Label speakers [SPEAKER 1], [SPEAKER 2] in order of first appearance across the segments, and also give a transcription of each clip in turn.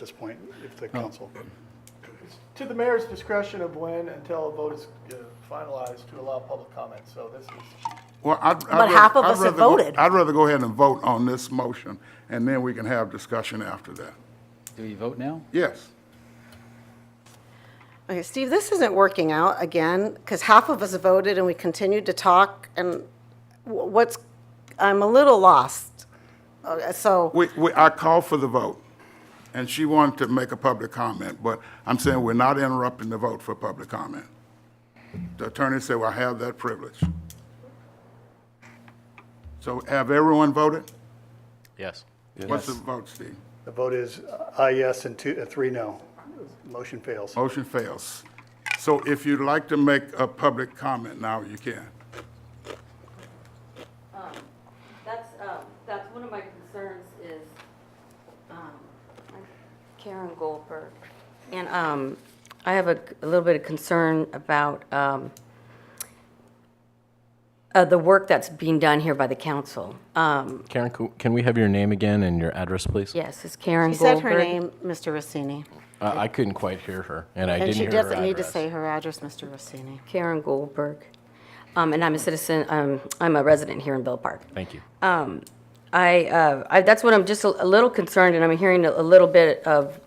[SPEAKER 1] this point, if
[SPEAKER 2] Oh.
[SPEAKER 1] the council.
[SPEAKER 3] To the mayor's discretion of when until a vote is uh, finalized to allow public comment, so this is,
[SPEAKER 4] Well, I'd. I'd
[SPEAKER 5] But
[SPEAKER 4] rather-
[SPEAKER 5] half of
[SPEAKER 4] I'd
[SPEAKER 5] us have
[SPEAKER 4] rather go-
[SPEAKER 5] voted.
[SPEAKER 4] I'd rather go ahead and vote on this motion, and then we can have discussion after that.
[SPEAKER 6] Do we vote now?
[SPEAKER 4] Yes.
[SPEAKER 5] Okay, Steve, this isn't working out again, because half of us voted and we continued to talk, and wh- what's, I'm a little lost. Uh, So,
[SPEAKER 4] We, we, I called for the vote, and she wanted to make a public comment, but I'm saying we're not interrupting the vote for public comment. The attorney said, well, I have that privilege. So have everyone voted?
[SPEAKER 6] Yes.
[SPEAKER 4] What's the vote, Steve?
[SPEAKER 1] The vote is aye, yes, and two, uh, three, no. Motion fails.
[SPEAKER 4] Motion fails. So if you'd like to make a public comment now, you can.
[SPEAKER 2] That's, um, that's one of my concerns is, um, I'm Karen Goldberg. And, um, I have a, a little bit of concern about, um, uh, the work that's being done here by the council. Um,
[SPEAKER 7] Karen, co- can we have your name again and your address, please?
[SPEAKER 2] yes, it's Karen
[SPEAKER 5] she
[SPEAKER 2] Goldberg.
[SPEAKER 5] said her name, Mr. Rossini.
[SPEAKER 7] Uh, I couldn't quite hear her, and I
[SPEAKER 5] And
[SPEAKER 7] didn't
[SPEAKER 5] she
[SPEAKER 7] hear her
[SPEAKER 5] doesn't need to
[SPEAKER 7] address.
[SPEAKER 5] say her address, Mr. Rossini.
[SPEAKER 2] Karen Goldberg. Um, and I'm a citizen, um, I'm a resident here in Bell Park.
[SPEAKER 7] Thank you.
[SPEAKER 2] I, uh, I, that's what I'm just a, a little concerned, and I'm hearing a, a little bit of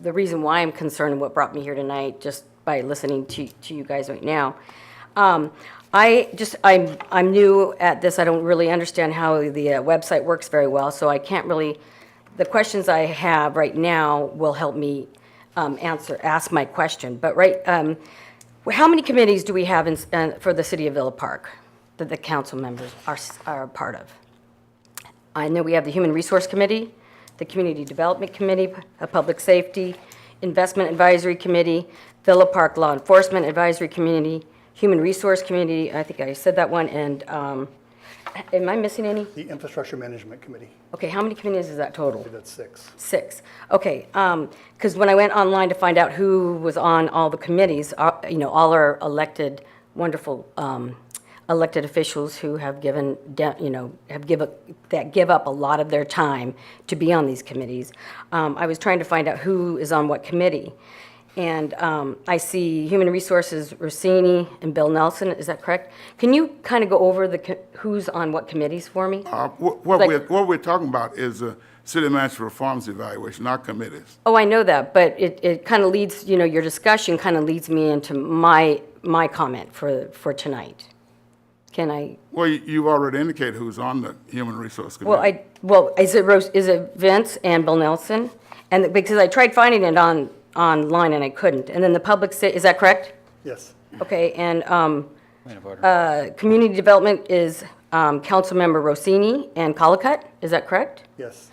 [SPEAKER 2] the reason why I'm concerned and what brought me here tonight, just by listening to, to you guys right now. Um, I just, I'm, I'm new at this, I don't really understand how the uh, website works very well, so I can't really, the questions I have right now will help me, um, answer, ask my question, but right, um, how many committees do we have in, s- uh, for the city of Villa Park that the council members are, s- are a part of? I know we have the Human Resource Committee, the Community Development Committee, a Public Safety, Investment Advisory Committee, Villa Park Law Enforcement Advisory Committee, Human Resource Committee, I think I said that one, and, um, am I missing any?
[SPEAKER 1] The Infrastructure Management Committee,
[SPEAKER 2] Okay, how many committees is that total?
[SPEAKER 1] that's six.
[SPEAKER 2] Six. Okay, because when I went online to find out who was on all the committees, uh, you know, all our elected, wonderful um, elected officials who have given, de- you know, have give up, that give up a lot of their time to be on these committees. Um, I was trying to find out who is on what committee. And um, I see Human Resources, Rossini, and Bill Nelson, is that correct? Can you kind of go over the, co- who's on what committees for me?
[SPEAKER 4] Uh, wh- What
[SPEAKER 2] Like-
[SPEAKER 4] we're, what we're talking about is a city manager reforms evaluation, not committees.
[SPEAKER 2] Oh, I know that, but it, it kind of leads, you know, your discussion kind of leads me into my, my comment for, for tonight. Can I,
[SPEAKER 4] Well, you- you've already indicated who's on the Human Resource Committee.
[SPEAKER 2] well, I, well, is it Rose, is it Vince and Bill Nelson? And, because I tried finding it on, online and I couldn't. And then the public, sa- is that correct?
[SPEAKER 1] Yes.
[SPEAKER 2] Okay, and, um,
[SPEAKER 6] Point of order.
[SPEAKER 2] uh, community development is, um, Councilmember Rossini and Colacott, is that correct?
[SPEAKER 1] Yes.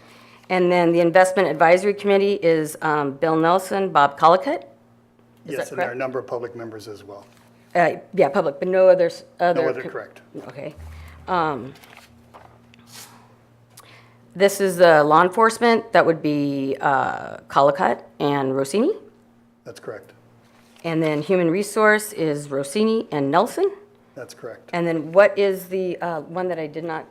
[SPEAKER 2] And then the investment advisory committee is, um, Bill Nelson, Bob Colacott?
[SPEAKER 1] Yes,
[SPEAKER 2] that
[SPEAKER 1] and there are a
[SPEAKER 2] correct?
[SPEAKER 1] number of public members as well.
[SPEAKER 2] Uh, yeah, public, but no others, other.
[SPEAKER 1] No other
[SPEAKER 2] co-
[SPEAKER 1] correct.
[SPEAKER 2] Okay. Um, This is the law enforcement, that would be uh, Colacott and Rossini.
[SPEAKER 1] That's correct.
[SPEAKER 2] And then human resource is Rossini and Nelson.
[SPEAKER 1] That's correct.
[SPEAKER 2] And then what is the uh, one that I did not,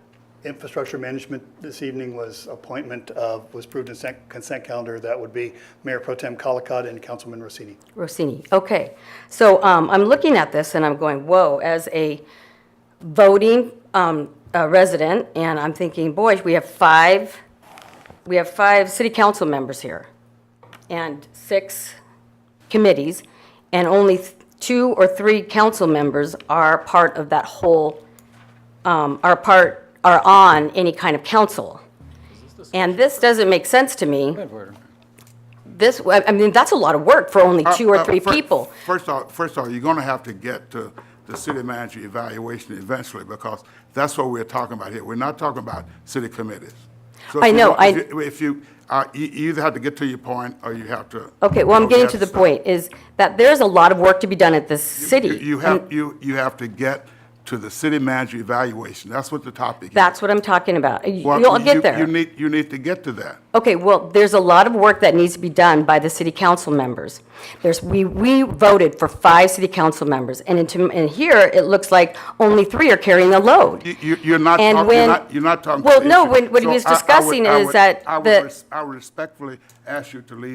[SPEAKER 1] Infrastructure management this evening was appointment of, was approved in consent- consent calendar. That would be Mayor Pro Tem Colacott and Councilman Rossini.
[SPEAKER 2] Rossini? Okay. So um, I'm looking at this and I'm going, whoa, as a voting um, uh, resident, and I'm thinking, boy, we have five, we have five city council members here, and six committees, and only th- two or three council members are part of that whole, um, are part, are on any kind of council. And this doesn't make sense to me.
[SPEAKER 6] Point of order.
[SPEAKER 2] This, I I mean, that's a lot of work for only two
[SPEAKER 4] Uh,
[SPEAKER 2] or
[SPEAKER 4] uh,
[SPEAKER 2] three
[SPEAKER 4] fir-
[SPEAKER 2] people.
[SPEAKER 4] First off, first off, you're going to have to get to the city manager evaluation eventually, because that's what we're talking about here. We're not talking about city committees. So if
[SPEAKER 2] I
[SPEAKER 4] you
[SPEAKER 2] know,
[SPEAKER 4] want-
[SPEAKER 2] I-
[SPEAKER 4] if you- If you, uh, you you either have to get to your point, or you have to.
[SPEAKER 2] Okay, well,
[SPEAKER 4] or
[SPEAKER 2] I'm
[SPEAKER 4] you
[SPEAKER 2] getting
[SPEAKER 4] have
[SPEAKER 2] to the
[SPEAKER 4] stop.
[SPEAKER 2] point, is that there's a lot of work to be done at this city.
[SPEAKER 4] You- You have, you, you have to get to the city manager evaluation. That's what the topic is.
[SPEAKER 2] That's what I'm talking about. You-
[SPEAKER 4] Well,
[SPEAKER 2] You'll
[SPEAKER 4] you-
[SPEAKER 2] get there.
[SPEAKER 4] You need, you need to get to that.
[SPEAKER 2] Okay, well, there's a lot of work that needs to be done by the city council members. There's, we, we voted for five city council members, and into, and here, it looks like only three are carrying the load.
[SPEAKER 4] You- you- You're not,
[SPEAKER 2] And
[SPEAKER 4] talk- you're
[SPEAKER 2] when-
[SPEAKER 4] not, you're not talking. to
[SPEAKER 2] Well,
[SPEAKER 4] the
[SPEAKER 2] no,
[SPEAKER 4] issue.
[SPEAKER 2] when- what he
[SPEAKER 4] So
[SPEAKER 2] was
[SPEAKER 4] I- I would-
[SPEAKER 2] discussing
[SPEAKER 4] I
[SPEAKER 2] is
[SPEAKER 4] would-
[SPEAKER 2] that
[SPEAKER 4] I would
[SPEAKER 2] the-
[SPEAKER 4] res- I would respectfully ask you to leave